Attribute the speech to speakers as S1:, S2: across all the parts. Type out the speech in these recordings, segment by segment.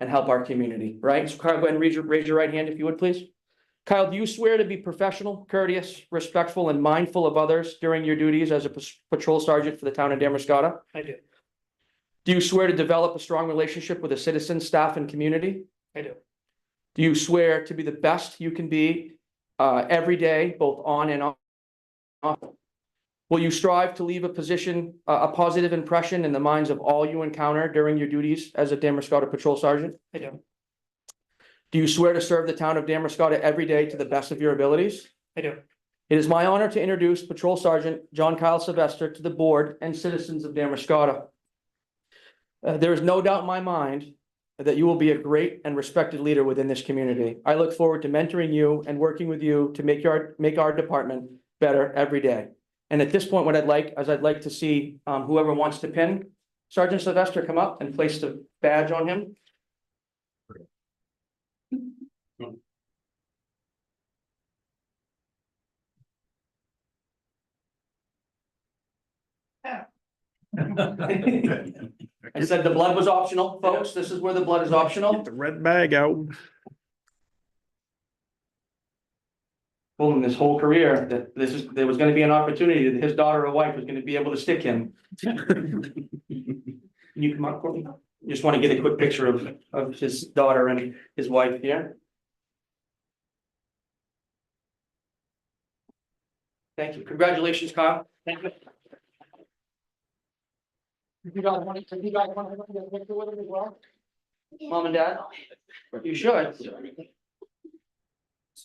S1: and help our community, right? So Kyle, go ahead and raise your, raise your right hand if you would, please. Kyle, do you swear to be professional, courteous, respectful, and mindful of others during your duties as a pas- patrol sergeant for the town of Damascotta?
S2: I do,
S1: Do you swear to develop a strong relationship with the citizens, staff, and community?
S2: I do,
S1: Do you swear to be the best you can be uh, every day, both on and off? Will you strive to leave a position, a a positive impression in the minds of all you encounter during your duties as a Damerscott Patrol Sergeant?
S2: I do,
S1: Do you swear to serve the town of Damerscott every day to the best of your abilities?
S2: I do.
S1: It is my honor to introduce Patrol Sergeant John Kyle Sylvester to the board and citizens of Damerscott. Uh, there is no doubt in my mind that you will be a great and respected leader within this community. I look forward to mentoring you and working with you to make your, make our department better every day. And at this point, what I'd like, is I'd like to see, um, whoever wants to pin Sergeant Sylvester come up and place the badge on him. I said the blood was optional, folks. This is where the blood is optional.
S3: Get the red bag out.
S1: told him this whole career that this is, there was gonna be an opportunity that his daughter or wife was gonna be able to stick him. Can you come up, Courtney? Just wanna get a quick picture of, of his daughter and his wife here. Thank you. Congratulations, Kyle. Thank you. You guys want, you guys want to get a picture with him as well? Mom and dad? You should.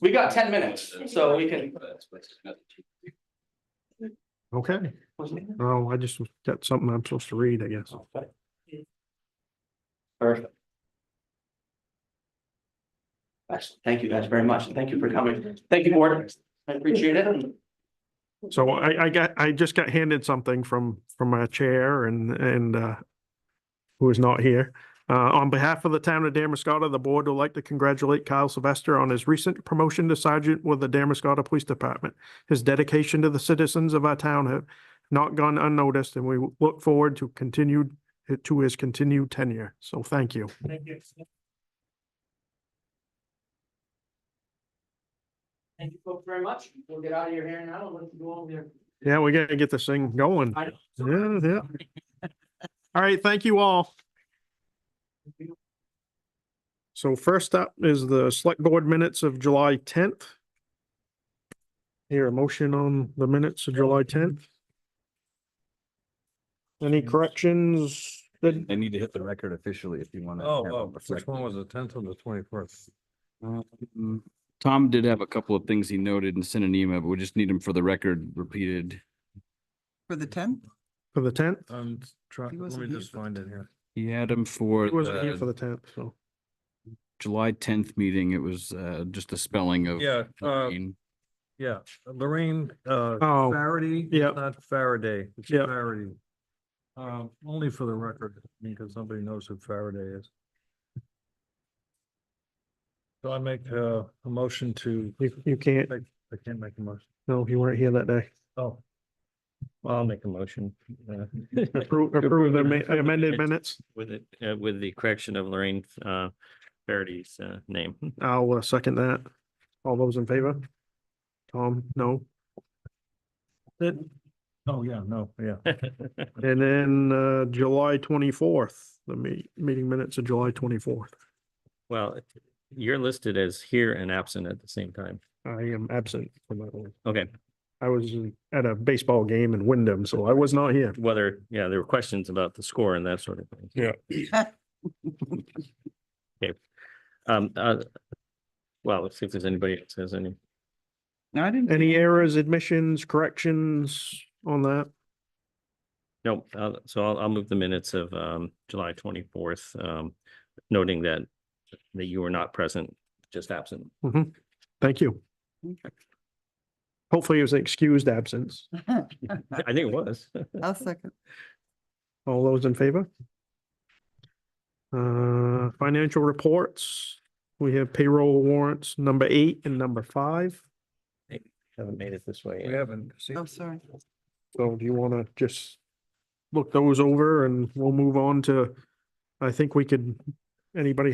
S1: We got ten minutes, so we can.
S3: Okay. Oh, I just got something I'm supposed to read, I guess.
S1: Perfect. Excellent. Thank you guys very much. Thank you for coming. Thank you, board. I appreciate it.
S3: So I, I got, I just got handed something from, from our chair and, and, uh, who is not here. Uh, on behalf of the town of Damascotta, the board would like to congratulate Kyle Sylvester on his recent promotion to sergeant with the Damascotta Police Department. His dedication to the citizens of our town have not gone unnoticed and we look forward to continued, to his continued tenure. So thank you.
S2: Thank you.
S1: Thank you folks very much. We'll get out of your hair now and let you go over there.
S3: Yeah, we gotta get this thing going.
S1: I know.
S3: Yeah, yeah. All right, thank you all. So first up is the select board minutes of July tenth. Here, a motion on the minutes of July tenth. Any corrections? Did-
S4: I need to hit the record officially if you want to.
S5: Oh, oh, which one was the tenth and the twenty-first?
S4: Um, Tom did have a couple of things he noted and sent an email, but we just need him for the record repeated.
S6: For the tenth?
S3: for the tenth?
S5: I'm
S6: He
S5: trying, let
S6: wasn't
S5: me
S6: here
S5: just
S6: for the
S5: find it here.
S4: He had him for
S3: It wasn't here for
S4: the
S3: the tenth, so.
S4: July tenth meeting. It was uh just the spelling of.
S5: Yeah, uh,
S4: Lorraine.
S5: yeah, Lorraine, uh,
S3: Oh,
S5: Faraday.
S3: yeah.
S5: Not Faraday, it's
S3: Yeah.
S5: Faraday. Um, only for the record, because nobody knows who Faraday is. So I make uh, a motion to,
S3: you, you can't,
S5: I can't make a motion.
S3: no, you weren't here that day.
S5: Oh. Well, I'll make a motion. uh,
S3: Approve, approve the ama- amended minutes.
S7: With it, uh, with the correction of Lorraine, uh, Faherty's, uh, name.
S3: I'll uh, second that. All those in favor? Tom, no. That-
S5: Oh, yeah, no, yeah.
S3: And then uh, July twenty-fourth, the me- meeting minutes of July twenty-fourth.
S7: Well, you're listed as here and absent at the same time.
S3: I am absent from that one.
S7: Okay,
S3: I was at a baseball game in Wyndham, so I was not here.
S7: whether, yeah, there were questions about the score and that sort of thing.
S3: Yeah.
S7: Okay. Um, uh, well, let's see if there's anybody that says any.
S6: No, I didn't.
S3: Any errors, admissions, corrections on that?
S7: No, uh, so I'll, I'll move the minutes of, um, July twenty-fourth, um, noting that, that you were not present, just absent.
S3: Thank you. Hopefully it was an excused absence.
S7: I think it was.
S6: I'll second.
S3: All those in favor? Uh, financial reports, we have payroll warrants number eight and number five.
S7: Haven't made it this way
S5: We haven't. seen-
S6: I'm sorry.
S3: So do you want to just look those over and we'll move on to, I think we could, anybody